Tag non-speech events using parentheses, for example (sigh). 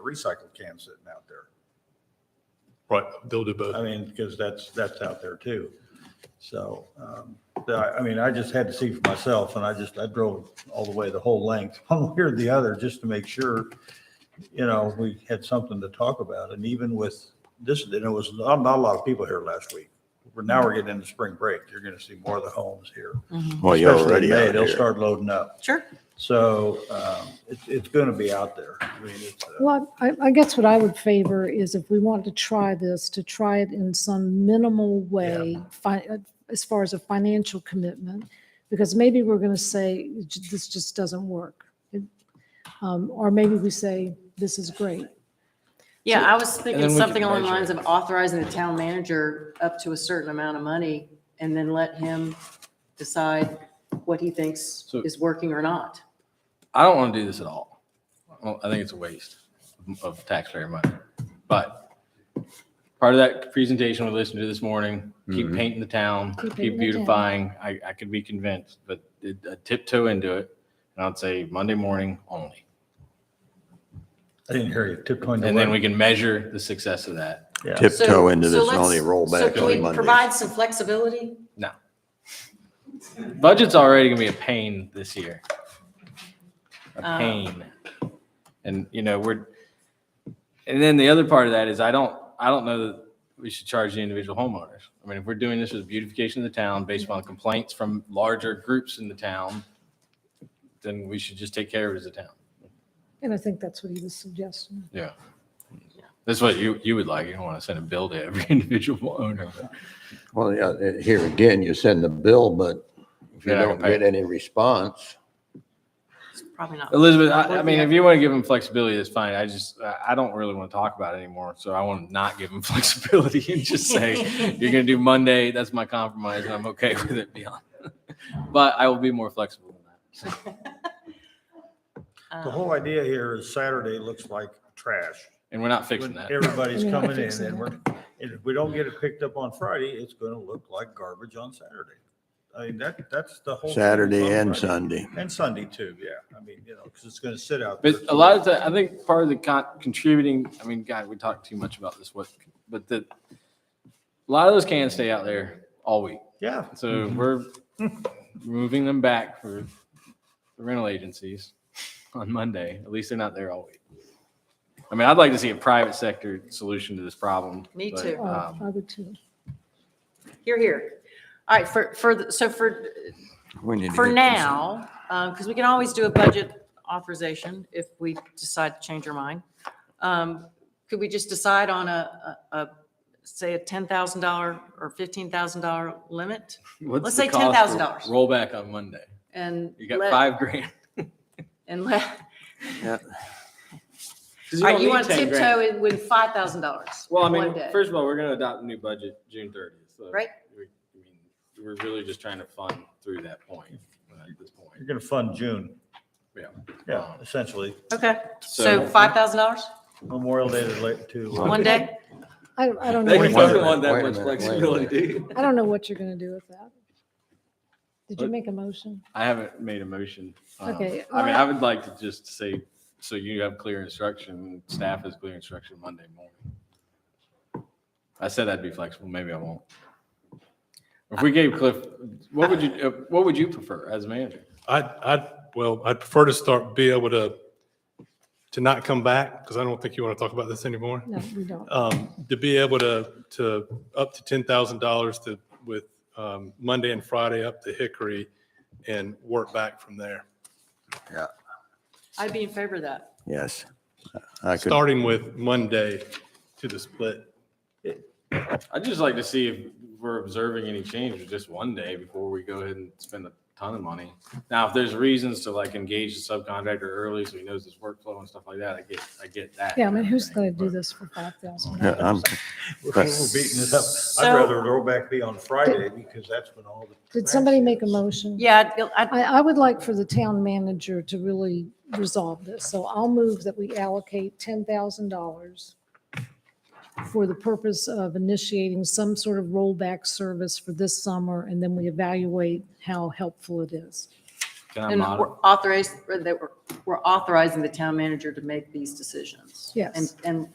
recycled cans sitting out there. Right, they'll do both. I mean, because that's, that's out there too. So, um, but I, I mean, I just had to see for myself and I just, I drove all the way, the whole length, (laughs) one way or the other, just to make sure, you know, we had something to talk about. And even with this, and it was not, not a lot of people here last week. But now we're getting into spring break. You're going to see more of the homes here. Well, Oh, you're Especially already in May, out They'll here. start loading up. Sure. So, um, it's, it's going to be out there. I mean, it's, uh, Well, I, I guess what I would favor is if we want to try this, to try it in some minimal way, fi- uh, as far as a financial commitment, because maybe we're going to say, "J- this just doesn't work. It- um, Or maybe we say, this is great. Yeah, I was thinking then we something can along the lines measure of authorizing the town manager up to a certain amount of money and then let him decide what he thinks So- is working or not. I don't want to do this at all. Well, I think it's a waste of taxpayer money. But part of that presentation we listened to this morning, keep painting the town, Keep painting keep the town. beautifying. I, I could be convinced, but it- uh, tiptoe into it. And I'd say Monday morning only. I didn't hear you. Tiptoeing. the And then way. we can measure the success of that. Yeah. So- Tiptoe into so this and only let's- roll so back can on we Monday. Provide some flexibility. No. Budget's already gonna be a pain this year. A Ah. pain. And, you know, we're, and then the other part of that is I don't, I don't know that we should charge the individual homeowners. I mean, if we're doing this as beautification of the town based upon complaints from larger groups in the town, then we should just take care of it as a town. And I think that's what he was suggesting. Yeah. That's what you, you would like. You don't want to send a bill to every (laughs) individual owner. Well, yeah, uh, here again, you send the bill, but if you They're not don't gonna pay get any response, It's probably not. Elizabeth, I, I mean, if you want to give them flexibility, that's fine. I just, I- I don't really want to talk about it anymore. So I want to not give them (laughs) flexibility and just say, you're going to do Monday. That's my compromise and I'm okay (laughs) with it beyond. But I will be more flexible than that. Um, The uh, whole idea here is Saturday looks like trash. And we're not fixing When that. everybody's Yeah, coming in fixing and it. we're, and if we don't get it picked up on Friday, it's gonna look like garbage on Saturday. I mean, that, that's the whole. thing is on Saturday and Friday. Sunday. And Sunday too, yeah. I mean, you know, because it's gonna sit out. there But a too. lot of the, I think part of the con- contributing, I mean, God, we talk too much about this, what, but the, a lot of those cans stay out there all week. Yeah, So we're moving them back for the rental agencies (laughs) on Monday. At least they're not there all week. I mean, I'd like to see a private sector solution to this problem. Me but, too. Oh, um, I would too. Here, here. All right, for, for, the- so for, we need to for get this- now, because we can always do a budget authorization if we decide to change our mind. Um, Could we just decide on a, a, a- say a $10,000 or $15,000 limit? what's Let's the say cost for $10,000. Rollback on Monday. And You got let- five grand. And let, Yeah. (laughs) 'Cause all right, don't you need want to 10 grand. tiptoe in with $5,000 Well, I one mean, day. first of all, we're going to adopt a new budget June thirtieth. So Right. we- I mean, We're really just trying to fund through that point, uh, at this point. you're gonna fund June. Yeah. Yeah, essentially. Okay, So- so $5,000 Memorial Day to late to. uh, one day? I, don't- I don't They know, Wait what- a minute, wait a minute, wait a minute. do you? I don't know what you're going to do with that. Did you What? make a motion? I haven't made a motion. Um, Okay, I mean, well- I would like to just say, so you have clear instruction, staff has clear instruction Monday morning. I said I'd be flexible, maybe I won't. If we gave Cliff, what would you, uh, what would you prefer as manager? I'd, I'd, well, I'd prefer to start, be able to, to not come back, because I don't think you want to talk about this anymore. No, we don't. Um, to be able to, to, up to ten thousand dollars to, with, um, Monday and Friday up to Hickory and work back from there. I'd be in favor of that. Yes. I could, Starting with Monday to the split. I'd just like to see if we're observing any change with just one day before we go ahead and spend a ton of money. Now, if there's reasons to like engage the subcontractor early so he knows his workflow and stuff like that, I get, I get that. Yeah, I mean, who's going to do But- this for $5,000? yeah, I'm, (laughs) We're beating it up. I'd So- rather roll back be on Friday because that's when all the. Did trash somebody make a is. motion? Yeah, I'd- I'd, I, I would like for the town manager to really resolve this. So I'll move that we allocate $10,000 for the purpose of initiating some sort of rollback service for this summer, and then we evaluate how helpful it is. Can I And modify? we're authorized, that we're, we're authorizing the town manager to make these decisions. Yes. And, and